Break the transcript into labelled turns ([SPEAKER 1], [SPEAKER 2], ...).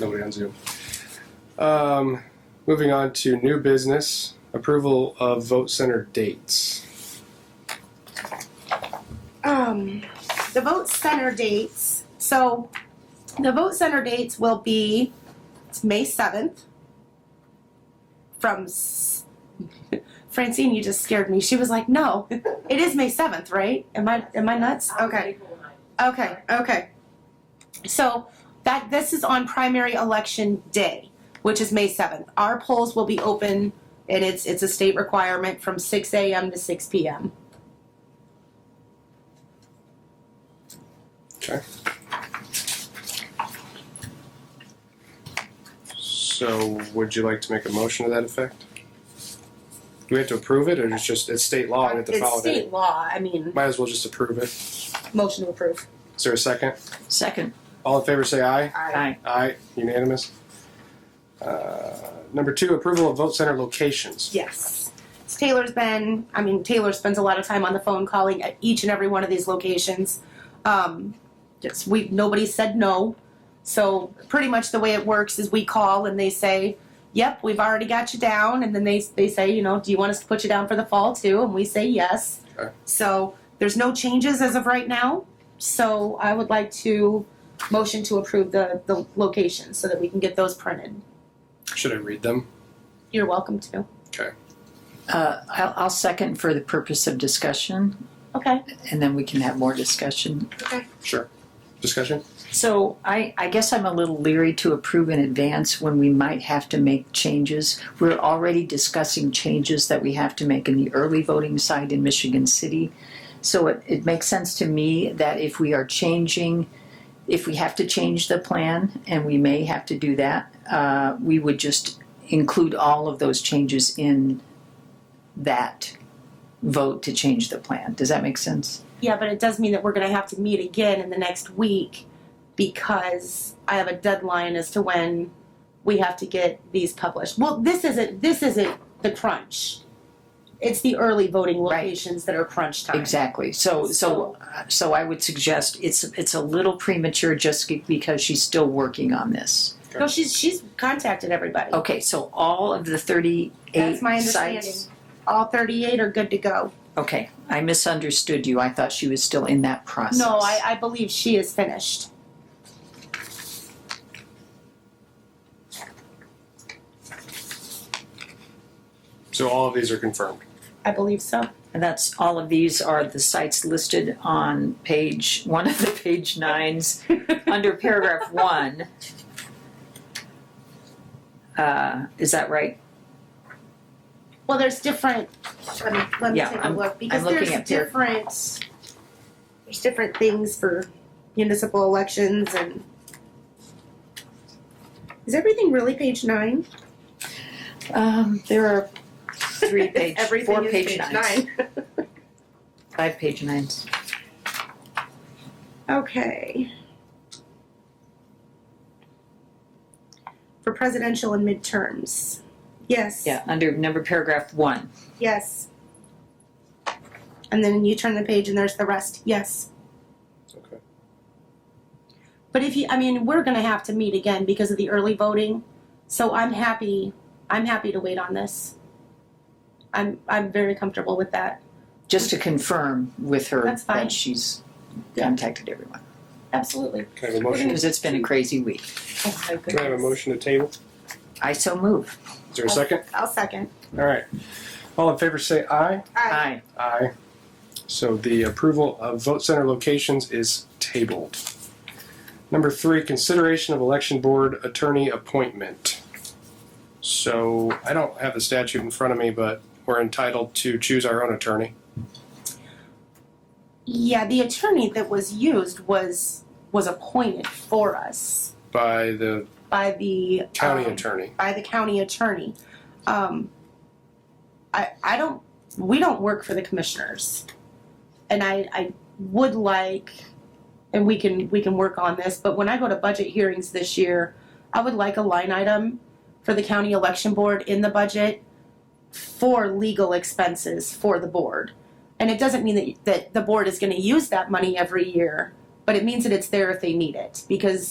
[SPEAKER 1] Nobody on Zoom. Um, moving on to new business approval of vote center dates.
[SPEAKER 2] um, the vote center dates, so the vote center dates will be it's May seventh from s- Francine, you just scared me. She was like, "No, it is May seventh, right? Am I am I nuts?" Okay, okay, okay. So that this is on primary election day, which is May seventh. Our polls will be open, and it's it's a state requirement from six a.m. to six p.m.
[SPEAKER 1] Okay. So would you like to make a motion to that effect? Do we have to approve it or it's just, it's state law and we have to
[SPEAKER 2] It's
[SPEAKER 1] follow it?
[SPEAKER 2] state law, I mean,
[SPEAKER 1] Might as well just approve it. Is
[SPEAKER 2] motion to approve.
[SPEAKER 1] there a second?
[SPEAKER 3] Second.
[SPEAKER 1] All in favor say aye.
[SPEAKER 3] Aye.
[SPEAKER 1] Aye, unanimous. Uh, Number two, approval of vote center locations.
[SPEAKER 2] Yes. So Taylor's been, I mean, Taylor spends a lot of time on the phone calling at each and every one of these locations. Um, just, we, nobody said no. So pretty much the way it works is we call and they say, yep, we've already got you down. And then they, they say, you know, do you want us to put you down for the fall too? And we say yes.
[SPEAKER 1] Sure.
[SPEAKER 2] So there's no changes as of right now. So I would like to motion to approve the, the locations so that we can get those printed.
[SPEAKER 1] Should I read them?
[SPEAKER 2] You're welcome to.
[SPEAKER 3] Uh, I'll, I'll second for the purpose of discussion,
[SPEAKER 2] Okay.
[SPEAKER 3] and then we can have more discussion.
[SPEAKER 1] Sure. Discussion?
[SPEAKER 3] So I, I guess I'm a little leery to approve in advance when we might have to make changes. We're already discussing changes that we have to make in the early voting side in Michigan City. So it, it makes sense to me that if we are changing, if we have to change the plan, and we may have to do that, uh, we would just include all of those changes in that vote to change the plan. Does that make sense?
[SPEAKER 2] Yeah, but it does mean that we're going to have to meet again in the next week because I have a deadline as to when we have to get these published. Well, this isn't this isn't the crunch. It's the early voting
[SPEAKER 3] Right.
[SPEAKER 2] locations that are crunch time.
[SPEAKER 3] Exactly. So, so, so I would suggest it's it's a little premature just ge- because she's still working on this.
[SPEAKER 2] No, she's she's contacted everybody.
[SPEAKER 3] Okay, so all of the thirty-eight
[SPEAKER 2] That's my understanding.
[SPEAKER 3] Oh, sites.
[SPEAKER 2] All 38 are good to go.
[SPEAKER 3] Okay, I misunderstood you. I thought she was still in that process.
[SPEAKER 2] No, I, I believe she is finished.
[SPEAKER 1] So all of these are confirmed.
[SPEAKER 2] I believe so.
[SPEAKER 3] And that's all of these are the sites listed on page one of the page nines under paragraph one. Uh, is that right?
[SPEAKER 2] Well, there's different. Let me, let me
[SPEAKER 3] Yeah,
[SPEAKER 2] take a
[SPEAKER 3] I'm-
[SPEAKER 2] look because
[SPEAKER 3] I'm looking
[SPEAKER 2] there's
[SPEAKER 3] at their-
[SPEAKER 2] different. There's different things for municipal elections and. Is everything really page nine?
[SPEAKER 3] Um, there are three page,
[SPEAKER 2] everything
[SPEAKER 3] four
[SPEAKER 2] is
[SPEAKER 3] page
[SPEAKER 2] page
[SPEAKER 3] nines.
[SPEAKER 2] nine.
[SPEAKER 3] Five page nines.
[SPEAKER 2] Okay. For presidential and midterms. Yes.
[SPEAKER 3] Yeah, under number paragraph one.
[SPEAKER 2] Yes. And then you turn the page and there's the rest. Yes.
[SPEAKER 1] Okay.
[SPEAKER 2] But if you, I mean, we're gonna have to meet again because of the early voting, so I'm happy, I'm happy to wait on this. I'm, I'm very comfortable with that,
[SPEAKER 3] Just to confirm with her
[SPEAKER 2] That's fine.
[SPEAKER 3] that she's contacted everyone.
[SPEAKER 2] absolutely.
[SPEAKER 1] Can I have a motion?
[SPEAKER 3] Because it's been a crazy week.
[SPEAKER 2] Oh
[SPEAKER 1] Can I
[SPEAKER 2] my
[SPEAKER 1] have a
[SPEAKER 2] goodness.
[SPEAKER 1] motion to table?
[SPEAKER 3] I so move.
[SPEAKER 1] Is there a second?
[SPEAKER 2] I'll second.
[SPEAKER 1] All right. All in favor say aye.
[SPEAKER 3] Aye.
[SPEAKER 1] Aye. So the approval of vote center locations is tabled. Number three, consideration of election board attorney appointment. So I don't have the statute in front of me, but we're entitled to choose our own attorney.
[SPEAKER 2] Yeah, the attorney that was used was, was appointed for us
[SPEAKER 1] by the
[SPEAKER 2] by the.
[SPEAKER 1] county
[SPEAKER 2] um,
[SPEAKER 1] attorney.
[SPEAKER 2] By the county attorney. Um, I, I don't, we don't work for the commissioners. And I, I would like, and we can, we can work on this, but when I go to budget hearings this year, I would like a line item for the county election board in the budget for legal expenses for the board. And it doesn't mean that, that the board is gonna use that money every year, but it means that it's there if they need it, because